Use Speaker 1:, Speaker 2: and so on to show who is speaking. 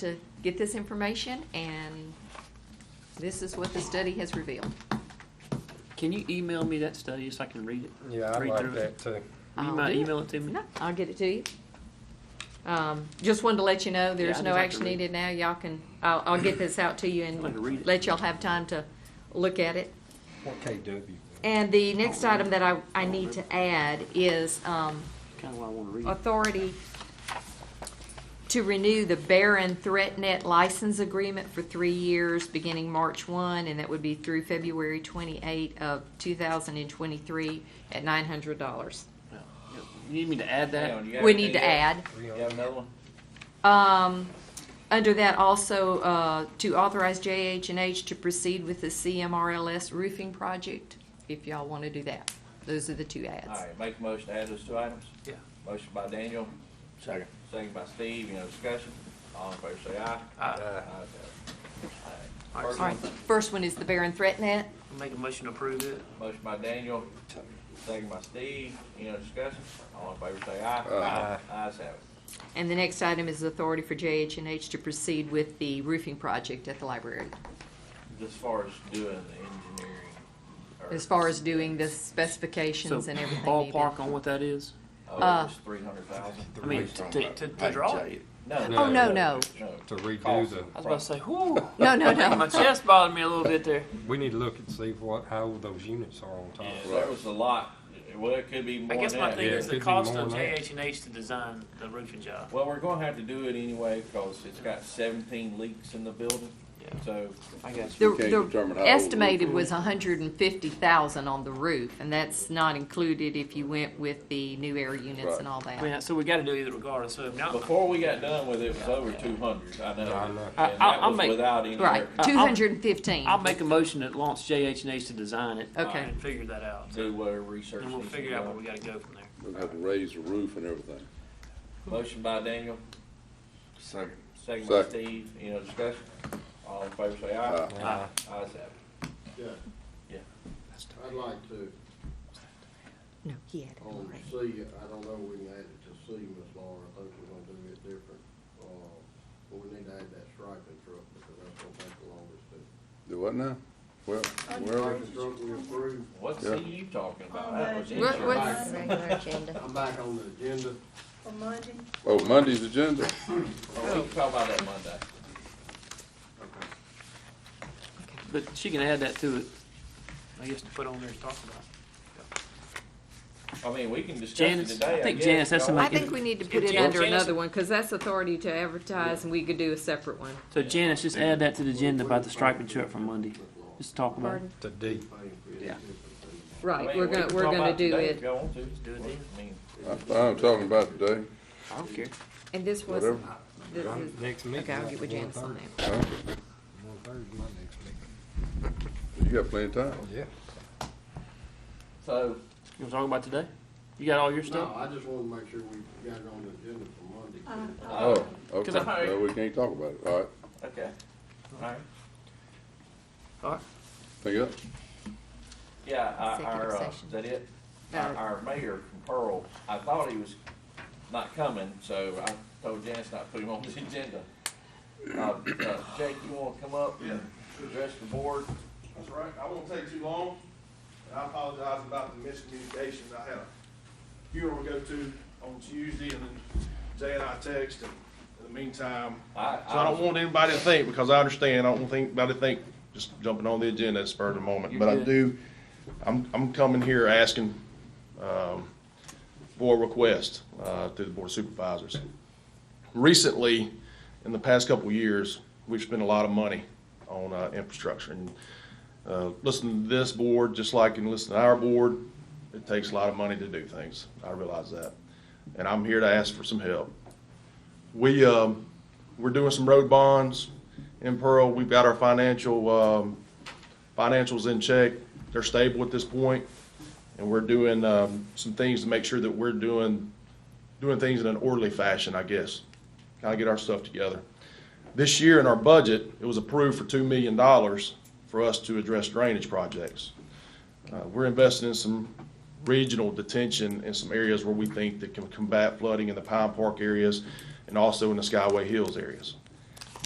Speaker 1: to get this information, and this is what the study has revealed.
Speaker 2: Can you email me that study just so I can read it?
Speaker 3: Yeah, I
Speaker 2: read
Speaker 3: like
Speaker 2: through
Speaker 3: that too.
Speaker 2: You
Speaker 1: I'll
Speaker 2: might
Speaker 1: do
Speaker 2: email it to me?
Speaker 1: No, I'll get it to you. Um, just wanted to let you know,
Speaker 2: Yeah,
Speaker 1: there's
Speaker 2: I'd
Speaker 1: no
Speaker 2: like to
Speaker 1: action
Speaker 2: read it.
Speaker 1: needed now, y'all can, I'll, I'll get this out to you
Speaker 2: I'd like to read
Speaker 1: and
Speaker 2: it.
Speaker 1: let y'all have time to look at it.
Speaker 3: What KW?
Speaker 1: And the next item that I, I need to add is, um,
Speaker 2: Kind of what I want to read.
Speaker 1: authority to renew the Barron ThreatNet license agreement for three years, beginning March 1, and that would be through February 28 of 2023 at $900.
Speaker 2: Yeah. You need me to add that?
Speaker 4: Hang on, you got
Speaker 1: We
Speaker 4: anything
Speaker 1: need to
Speaker 4: yet?
Speaker 1: add.
Speaker 3: We
Speaker 4: You
Speaker 3: on
Speaker 4: have another one?
Speaker 1: Um, under that also, uh, to authorize jh and H to proceed with the CMRLS roofing project, if y'all want to do that. Those are the two
Speaker 4: All
Speaker 1: ads.
Speaker 4: right, make a motion to add those two items.
Speaker 2: Yeah.
Speaker 4: Motion by Daniel,
Speaker 2: Second.
Speaker 4: second by Steve, any other discussion? All in favor say aye.
Speaker 2: Aye.
Speaker 4: Ayes
Speaker 3: Uh,
Speaker 4: have it. All
Speaker 2: All right.
Speaker 4: right. First
Speaker 1: All right,
Speaker 4: one,
Speaker 1: first one is the Barron ThreatNet.
Speaker 2: Make a motion to approve it.
Speaker 4: Motion by Daniel, second by Steve, any other discussion? All in favor say aye.
Speaker 3: Aye.
Speaker 4: Ayes have it.
Speaker 1: And the next item is authority for jh and H to proceed with the roofing project at the library,
Speaker 4: As far as doing the engineering. or-
Speaker 1: as far as doing the
Speaker 2: So
Speaker 1: specifications and everything needed.
Speaker 2: ballpark on what that is?
Speaker 4: Oh,
Speaker 1: uh,
Speaker 4: it's three hundred thousand?
Speaker 2: I mean, to, to, to, to draw it.
Speaker 4: No.
Speaker 1: Oh, no, no.
Speaker 3: To redo
Speaker 4: Cost.
Speaker 3: the,
Speaker 2: I was about to say, whoo.
Speaker 1: No, no, no.
Speaker 2: My chest bothered me a little bit there.
Speaker 3: we need to look and see what, how old those units are on top.
Speaker 4: Yeah, that was a lot, well, it could be more
Speaker 2: I
Speaker 4: than that.
Speaker 2: guess my thing
Speaker 3: Yeah,
Speaker 2: is
Speaker 3: it
Speaker 2: the
Speaker 3: could be
Speaker 2: cost
Speaker 3: more
Speaker 2: of
Speaker 3: than that.
Speaker 2: JH and H to design the roofing job.
Speaker 4: Well, we're gonna have to do it anyway, because it's got seventeen leaks in the building,
Speaker 2: Yeah.
Speaker 4: so.
Speaker 2: I guess.
Speaker 1: The,
Speaker 5: You can't determine
Speaker 1: the
Speaker 5: how old the roof
Speaker 1: estimated was hundred and fifty thousand on the roof, and that's not included if you went with the new air units
Speaker 5: Right.
Speaker 1: and all
Speaker 2: I
Speaker 1: that.
Speaker 2: mean, so we got to do either regardless. So now,
Speaker 4: Before we got done with it, it was over two hundred, I know.
Speaker 3: I know.
Speaker 4: And
Speaker 2: I- I'll- I'll
Speaker 4: that was
Speaker 2: make-
Speaker 4: without any.
Speaker 1: Right,
Speaker 4: work.
Speaker 2: I'll-
Speaker 1: two hundred and fifteen.
Speaker 2: I'll make a motion that launch JH and H to design it
Speaker 1: Okay.
Speaker 2: and figure that out.
Speaker 4: Do whatever research.
Speaker 2: And we'll
Speaker 4: needs to be
Speaker 2: figure out where
Speaker 4: done.
Speaker 2: we got to go from there.
Speaker 5: We'll have to raise the roof and everything.
Speaker 4: Motion by Daniel,
Speaker 5: Second.
Speaker 4: second by
Speaker 5: Second.
Speaker 4: Steve, you know, discussion, all in favor say aye.
Speaker 5: Aye.
Speaker 3: Uh,
Speaker 4: Ayes have it.
Speaker 6: Yeah.
Speaker 4: Yeah.
Speaker 6: I'd like to,
Speaker 1: No, he had it
Speaker 6: on
Speaker 1: already.
Speaker 6: C, I don't know, we can add it to C, Miss Laura, I think we're gonna do it different. Uh, but we need to add that striping truck, because that's gonna take the longest to.
Speaker 5: Do what now? Well, where?
Speaker 6: Striping truck we approved,
Speaker 4: What
Speaker 5: Yeah.
Speaker 4: see you talking about?
Speaker 7: Oh,
Speaker 4: That
Speaker 7: no.
Speaker 4: was
Speaker 1: What, what's,
Speaker 4: insurance.
Speaker 7: Regular agenda.
Speaker 6: I'm back on the agenda,
Speaker 7: For Monday?
Speaker 5: Oh, Monday's agenda.
Speaker 4: Oh, We can talk about that Monday.
Speaker 6: okay.
Speaker 2: But she can add that to it, I guess, to put on there and talk about.
Speaker 4: I mean, we can discuss it
Speaker 2: Janice,
Speaker 4: today,
Speaker 2: I
Speaker 4: I
Speaker 2: think
Speaker 4: guess,
Speaker 2: Janice has
Speaker 4: y'all
Speaker 2: to
Speaker 4: want
Speaker 1: I
Speaker 2: make
Speaker 4: to-
Speaker 2: it-
Speaker 1: think we need to put it
Speaker 2: Janice-
Speaker 1: under another one, because that's authority to advertise, and we could do a separate one.
Speaker 2: So Janice, just add that to the agenda about the striping truck from Monday. Just talk about it.
Speaker 1: Pardon?
Speaker 3: to D.
Speaker 6: Paying for it.
Speaker 2: Yeah.
Speaker 4: I mean,
Speaker 1: Right, we're
Speaker 4: we
Speaker 1: gonna,
Speaker 4: can
Speaker 1: we're
Speaker 4: talk
Speaker 1: gonna
Speaker 4: about
Speaker 1: do
Speaker 4: today
Speaker 1: it.
Speaker 4: If y'all want to.
Speaker 2: do it then.
Speaker 4: I mean,
Speaker 5: I'm fine talking about today.
Speaker 2: I don't care.
Speaker 1: And this was, uh,
Speaker 5: Whatever.
Speaker 1: this is,
Speaker 3: Next meeting.
Speaker 1: okay, I'll get with Janice on that.
Speaker 5: Huh?
Speaker 3: One third, my next meeting.
Speaker 5: You got plenty of time.
Speaker 3: Yeah.
Speaker 4: So,
Speaker 2: You want to talk about today? You got all your
Speaker 6: No,
Speaker 2: stuff?
Speaker 6: I just wanna make sure we got it on the agenda for Monday.
Speaker 4: Uh,
Speaker 5: Oh, okay.
Speaker 2: 'Cause I-
Speaker 5: No, we can't talk about it. All right.
Speaker 4: okay, all right.
Speaker 2: All right.
Speaker 5: Think up.
Speaker 4: Yeah, our- our,
Speaker 1: Executive
Speaker 4: uh,
Speaker 1: session.
Speaker 4: is that it?
Speaker 1: Uh,
Speaker 4: Our, our mayor from Pearl, I thought he was not coming, so I told Janice not to put him on the agenda. Uh, uh, Jake, you wanna come up and address the board?
Speaker 8: That's right. I won't take too long. And I apologize about the miscommunication. I had a funeral to go to on Tuesday and then Jay and I text and in the meantime.
Speaker 4: I-
Speaker 8: So I don't want anybody to think, because I understand, I don't want anybody to think, just jumping on the agenda at spur of the moment.
Speaker 2: You're
Speaker 8: But I
Speaker 2: good.
Speaker 8: do, I'm, I'm coming here asking, um, for a request, uh, through the board of supervisors. Recently, in the past couple of years, we've spent a lot of money on, uh, infrastructure and uh, listen to this board, just like you listen to our board, it takes a lot of money to do things. I realize that. And I'm here to ask for some help. We, um, we're doing some road bonds in Pearl. We've got our financial, um, financials in check. They're stable at this point. And we're doing, um, some things to make sure that we're doing, doing things in an orderly fashion, I guess. Kind of get our stuff together. This year in our budget, it was approved for two million dollars for us to address drainage projects. Uh, we're investing in some regional detention in some areas where we think that can combat flooding in the Pine Park areas and also in the Skyway Hills areas.